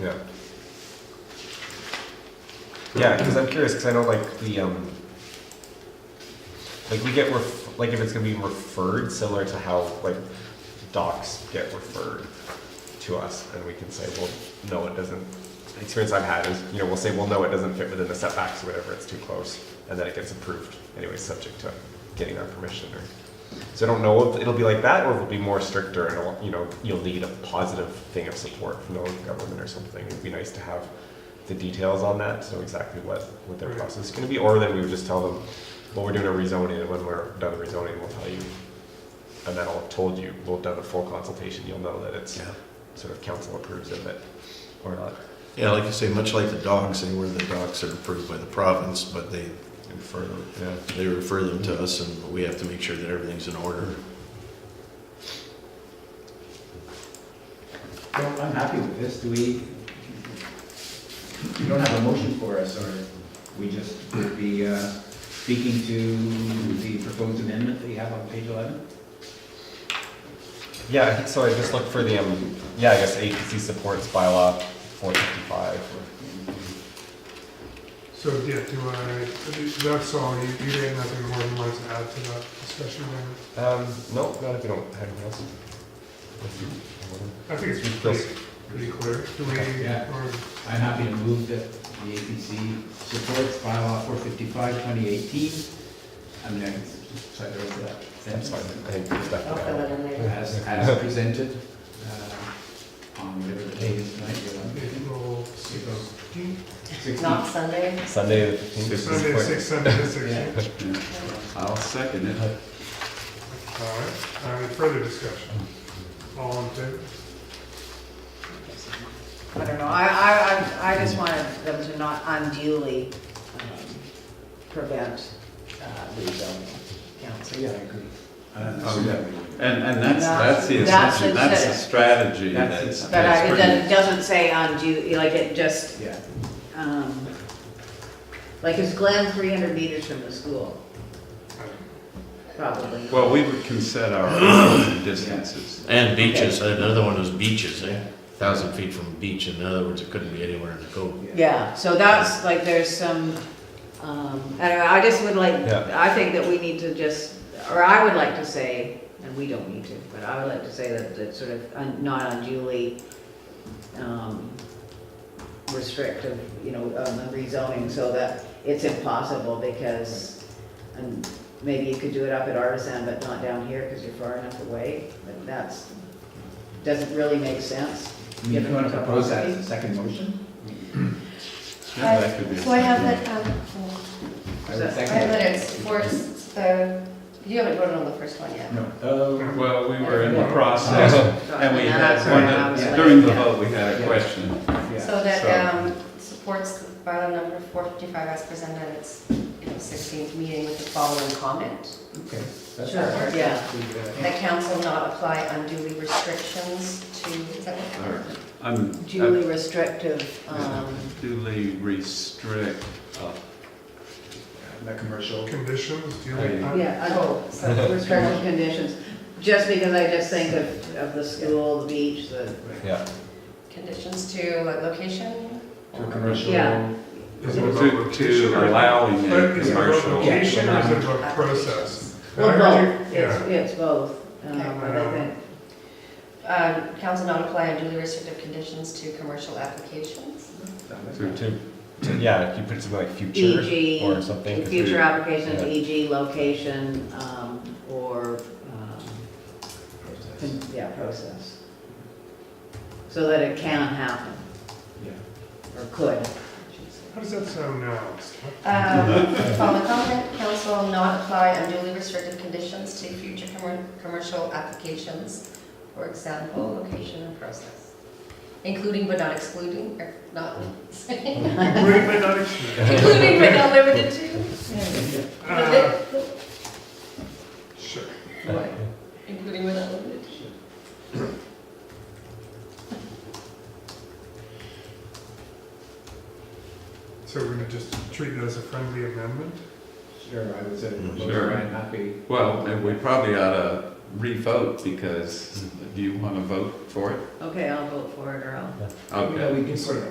Yeah. Yeah, because I'm curious, because I know like the, um, like we get, ref- like if it's gonna be referred, similar to how like docs get referred to us, and we can say, well, no, it doesn't. The experience I've had is, you know, we'll say, well, no, it doesn't fit within the setbacks or whatever, it's too close, and then it gets approved anyway, subject to getting our permission or. So I don't know if it'll be like that, or if it'll be more stricter, and it'll, you know, you'll need a positive thing of support from the local government or something. It'd be nice to have the details on that, so exactly what what their Right. process is going to be, or then we would just tell them, well, we're doing a rezoning, and when we're done the rezoning, we'll tell you, and then I'll have told you, we'll have done a full consultation, you'll know that it's Yeah. sort of council approves of it or not. Yeah, like you say, much like the dogs, they were, the dogs are approved by the province, but they, And further, yeah. they refer them to us and we have to make sure that everything's in order. Well, I'm happy with this, do we, you don't have a motion for us, or we just would be uh, speaking to the proposed amendment that you have on page 11? Yeah, I think so. I just looked for the um, yeah, I guess APC supports bylaw 455. So, yeah, do I, that's all, you, you didn't have anything more you wanted to add to that discussion, Raymond? Um, no, not if you don't have anything else. I think it's pretty, pretty clear, do we, Yeah. or, I'm happy to move that the APC supports bylaw 455, 2018. I'm going to second that. That's fine. I think it's I'll fill definitely. it in later. As, as presented uh, on whatever the date is tonight, April 16th? 16th. Not Sunday. Sunday the 15th. is Sunday, quick. six, Sunday, the 16th. Yeah. I'll second it. All right, any further discussion? All in favor? I don't know, I, I, I I just wanted them to not unduly um, prevent uh, rezoning council. Yeah, I agree. Oh, yeah. And, and that's, No, that's the that's assumption, the that's the set. strategy That's that's. the- But I, it that's doesn't- doesn't say undue, like it just, Yeah. um, like is Glen three hundred meters from the school? Probably. pretty- Well, we would consider our distances. And beaches, another one was beaches, eh? Thousand feet from a beach, in other words, it couldn't be anywhere in the code. Yeah, so that's, like, there's some, um, I don't know, I just would like, Yeah. I think that we need to just, or I would like to say, and we don't need to, but I would like to say that, that sort of un- not unduly, um, restrictive, you know, on the rezoning, so that it's impossible, because, and maybe you could do it up at Artisan, but not down here, because you're far enough away, but that's, doesn't really make sense. I mean, If you want to propose that as a second motion? Yeah, that could be a So I have strategy. that, um, I would I second have it. that it's first, uh, you haven't voted on the first one yet. No. Oh, Well, we were in the process, and we had That's one, right, I that- was like- during the yeah. vote, we had a Yeah. question. yeah. So that, So- um, supports bylaw number four fifty-five as presented, at its, you know, sixteenth meeting with the following comment. Okay. That's Sure. fine. Yeah. We, uh, That council not apply unduly restrictions to, is that what? Or, I'm duly restrictive, um, duly restrict, uh, The commercial. Conditions, do you like that? yeah, Oh, un- so, restrictive conditions. Just because I just think of, of the school, the beach, the, Yeah. conditions to what, location? To a commercial. Yeah. Is it about to location to or- allowing But a is it about commercial. location or is it about Yeah. process? well, I heard both, you- it's, Yeah, it's both, um, Okay. I think. Um, council not apply unduly restrictive conditions to commercial applications? To, to, to- yeah, if you put something like future E.g., or something. 'cause E future we- applications, yeah. e.g. location, um, or, um, con- yeah, process. So that it can happen, Yeah. or could. how does that sound now? Um, Following comment, council not apply unduly restrictive conditions to future commer- commercial applications, for example, location and process, including but not excluding, or not, Including but not excluding. including but not limited to, Uh, Sure. What? including but not limited to. So we're gonna just treat it as a friendly amendment? Sure, I would say. Sure. Might not be. Well, and we probably ought to re-vote because do you want to vote for it? Okay, I'll vote for it, or I'll Okay. No, we can sort of